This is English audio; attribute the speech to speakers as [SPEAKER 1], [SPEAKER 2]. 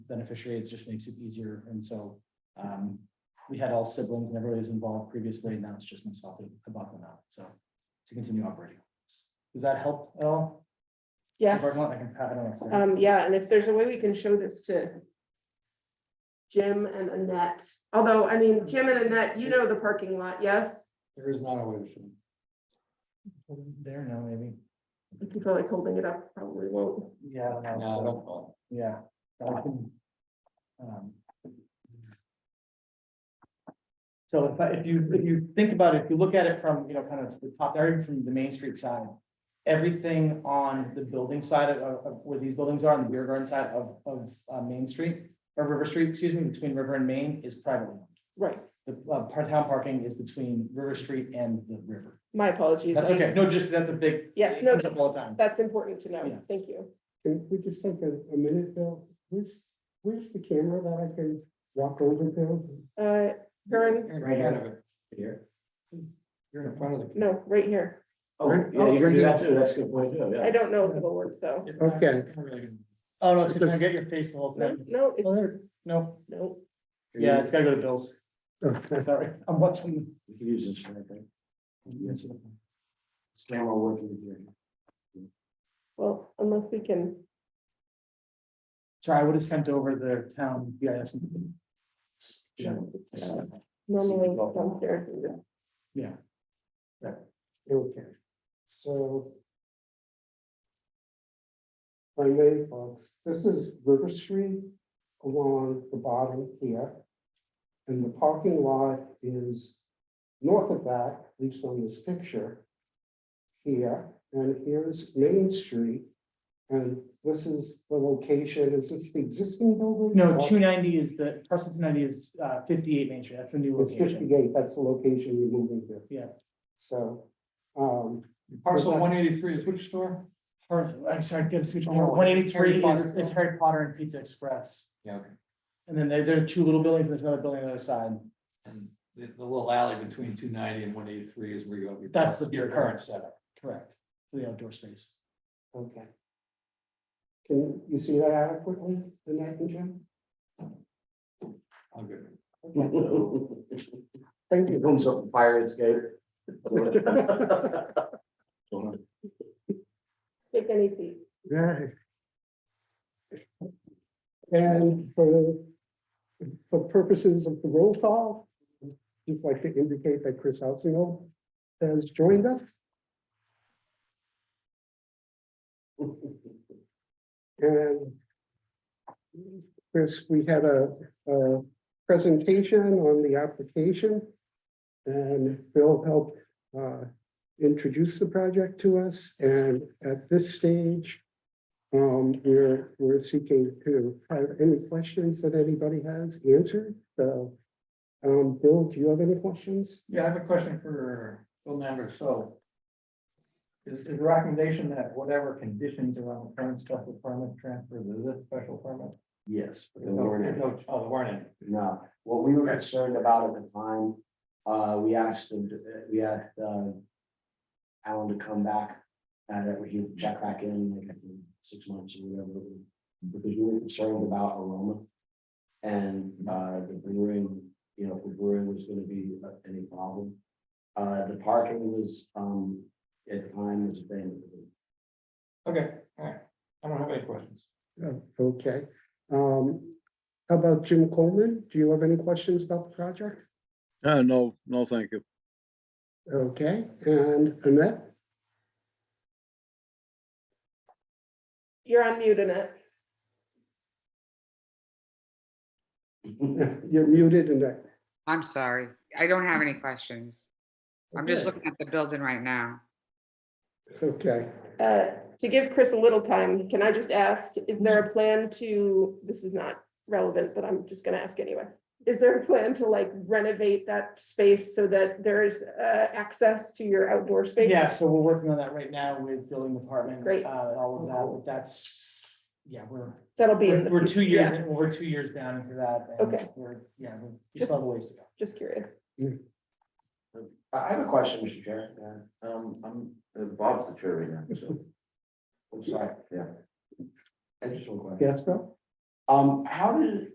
[SPEAKER 1] beneficiary, it just makes it easier. And so um, we had all siblings and everybody was involved previously, and now it's just myself and Abaka now, so to continue operating. Does that help at all?
[SPEAKER 2] Yes,
[SPEAKER 1] Or not, I can- I don't know.
[SPEAKER 2] um, yeah, and if there's a way we can show this to Jim and Annette, although, I mean, Jim and Annette, you know the parking lot, yes?
[SPEAKER 3] There is not a way to.
[SPEAKER 1] There now, maybe.
[SPEAKER 2] If you feel like holding it up, probably won't.
[SPEAKER 1] Yeah, I don't know, so-
[SPEAKER 3] No,
[SPEAKER 1] yeah. I can, um, So if I, if you, if you think about it, if you look at it from, you know, kind of the top, area from the Main Street side. Everything on the building side of, of where these buildings are, on the rear garden side of, of, uh, Main Street. Or River Street, excuse me, between River and Main is privately owned.
[SPEAKER 2] Right,
[SPEAKER 1] The uh, part- town parking is between River Street and the river.
[SPEAKER 2] my apologies.
[SPEAKER 1] That's
[SPEAKER 2] I-
[SPEAKER 1] okay. No, just that's a big.
[SPEAKER 2] Yes,
[SPEAKER 1] it
[SPEAKER 2] no,
[SPEAKER 1] comes up All the time.
[SPEAKER 2] That's important to
[SPEAKER 1] Yeah.
[SPEAKER 2] know, thank you.
[SPEAKER 4] Can we just take a, a minute, Bill? Where's, where's the camera that I can walk over to?
[SPEAKER 2] Uh, Karen,
[SPEAKER 3] Right out of it. Here. You're in front of the.
[SPEAKER 2] no, right here.
[SPEAKER 4] Oh, yeah,
[SPEAKER 3] you can do that
[SPEAKER 4] too. That's a good point, too,
[SPEAKER 2] I don't know if it'll work, though.
[SPEAKER 4] Okay.
[SPEAKER 1] Oh, no, it's gonna get your face the whole
[SPEAKER 2] No,
[SPEAKER 1] time.
[SPEAKER 2] no,
[SPEAKER 4] Well,
[SPEAKER 2] it's,
[SPEAKER 4] there-
[SPEAKER 1] No,
[SPEAKER 2] no,
[SPEAKER 1] yeah, it's gotta go to Bill's.
[SPEAKER 4] Okay.
[SPEAKER 1] Sorry, I'm watching.
[SPEAKER 3] We can use this for anything. Camera worth it here.
[SPEAKER 2] well, unless we can,
[SPEAKER 1] Sorry, I would have sent over the town GIS.
[SPEAKER 2] uh, normally downstairs. and just-
[SPEAKER 1] Yeah,
[SPEAKER 4] Okay, so. My name, folks, this is River Street along the bottom here. And the parking lot is north of that, at least on this picture. Here, and here's Main Street. And this is the location, is this the existing building?
[SPEAKER 1] no,
[SPEAKER 4] Or-
[SPEAKER 1] two ninety is the, parcel two ninety is uh fifty-eight Main Street, that's the new
[SPEAKER 4] It's
[SPEAKER 1] location.
[SPEAKER 4] fifty-eight, that's the location you're moving to.
[SPEAKER 1] Yeah.
[SPEAKER 4] So, um,
[SPEAKER 3] Parcel one eighty-three is which store?
[SPEAKER 1] Or, I'm sorry, get a switch,
[SPEAKER 3] Oh,
[SPEAKER 1] one eighty-three
[SPEAKER 3] Harry
[SPEAKER 1] is,
[SPEAKER 3] Potter.
[SPEAKER 1] is Harry Potter and Pizza Express.
[SPEAKER 3] Yeah, okay.
[SPEAKER 1] And then there, there are two little buildings, and there's another building on the other side.
[SPEAKER 3] And the, the little alley between two ninety and one eighty-three is where you have. your-
[SPEAKER 1] That's the-
[SPEAKER 3] Your current setup.
[SPEAKER 1] Correct, for the outdoor space.
[SPEAKER 4] okay. Can you see that adequately, Annette and Jim?
[SPEAKER 3] I'm good.
[SPEAKER 4] Thank you.
[SPEAKER 5] Comes up and fire escape.
[SPEAKER 2] Take any seat.
[SPEAKER 4] Right. And for, for purposes of the roll call, just like to indicate that Chris Altsingel has joined us. And Chris, we had a, a presentation on the application. And Bill helped, uh, introduce the project to us, and at this stage, um, we're, we're seeking to have any questions that anybody has answered, so. Um, Bill, do you have any questions?
[SPEAKER 3] Yeah, I have a question for Bill Nander, so. Is, is the recommendation that whatever conditions around the current special permit transfer to this special permit?
[SPEAKER 5] Yes, but there
[SPEAKER 3] No,
[SPEAKER 5] weren't any.
[SPEAKER 3] no, Oh, there weren't any.
[SPEAKER 5] No, what we were concerned about at the time, uh, we asked them, to- we asked, uh. Alan to come back, and that he'd check back in like in six months or whatever. Because we were concerned about aroma. And, uh, the brewing, you know, if the brewing was gonna be uh, any problem. Uh, the parking was, um, at the time was abandoned.
[SPEAKER 3] Okay, all right. I don't have any questions.
[SPEAKER 4] Oh, Okay, um, how about Jim Coleman? Do you have any questions about the project?
[SPEAKER 6] Uh, no, no, thank you.
[SPEAKER 4] Okay, and Annette?
[SPEAKER 2] You're on mute, Annette.
[SPEAKER 4] You're muted, Annette.
[SPEAKER 7] I'm sorry. I don't have any questions. I'm just
[SPEAKER 4] Okay.
[SPEAKER 7] looking at the building right now.
[SPEAKER 4] Okay,
[SPEAKER 2] Uh, to give Chris a little time, can I just ask, is there a plan to, this is not relevant, but I'm just gonna ask anyway. Is there a plan to like renovate that space so that there's uh access to your outdoor space?
[SPEAKER 1] Yeah, so we're working on that right now with building department.
[SPEAKER 2] Great.
[SPEAKER 1] Uh, and all of that,
[SPEAKER 3] Oh.
[SPEAKER 1] but that's, yeah, we're,
[SPEAKER 2] That'll be in
[SPEAKER 1] we're
[SPEAKER 2] the.
[SPEAKER 1] we're two years,
[SPEAKER 2] yeah,
[SPEAKER 1] in- we're two years down into that. and
[SPEAKER 2] Okay.
[SPEAKER 1] We're, yeah, we just have a ways to go.
[SPEAKER 2] Just curious.
[SPEAKER 5] I I have a question, Mr. Chair. Um, I'm, uh, Bob's the chair right now, so. I'm sorry, yeah. I just one question.
[SPEAKER 4] yes, Bill?
[SPEAKER 5] Um, how did,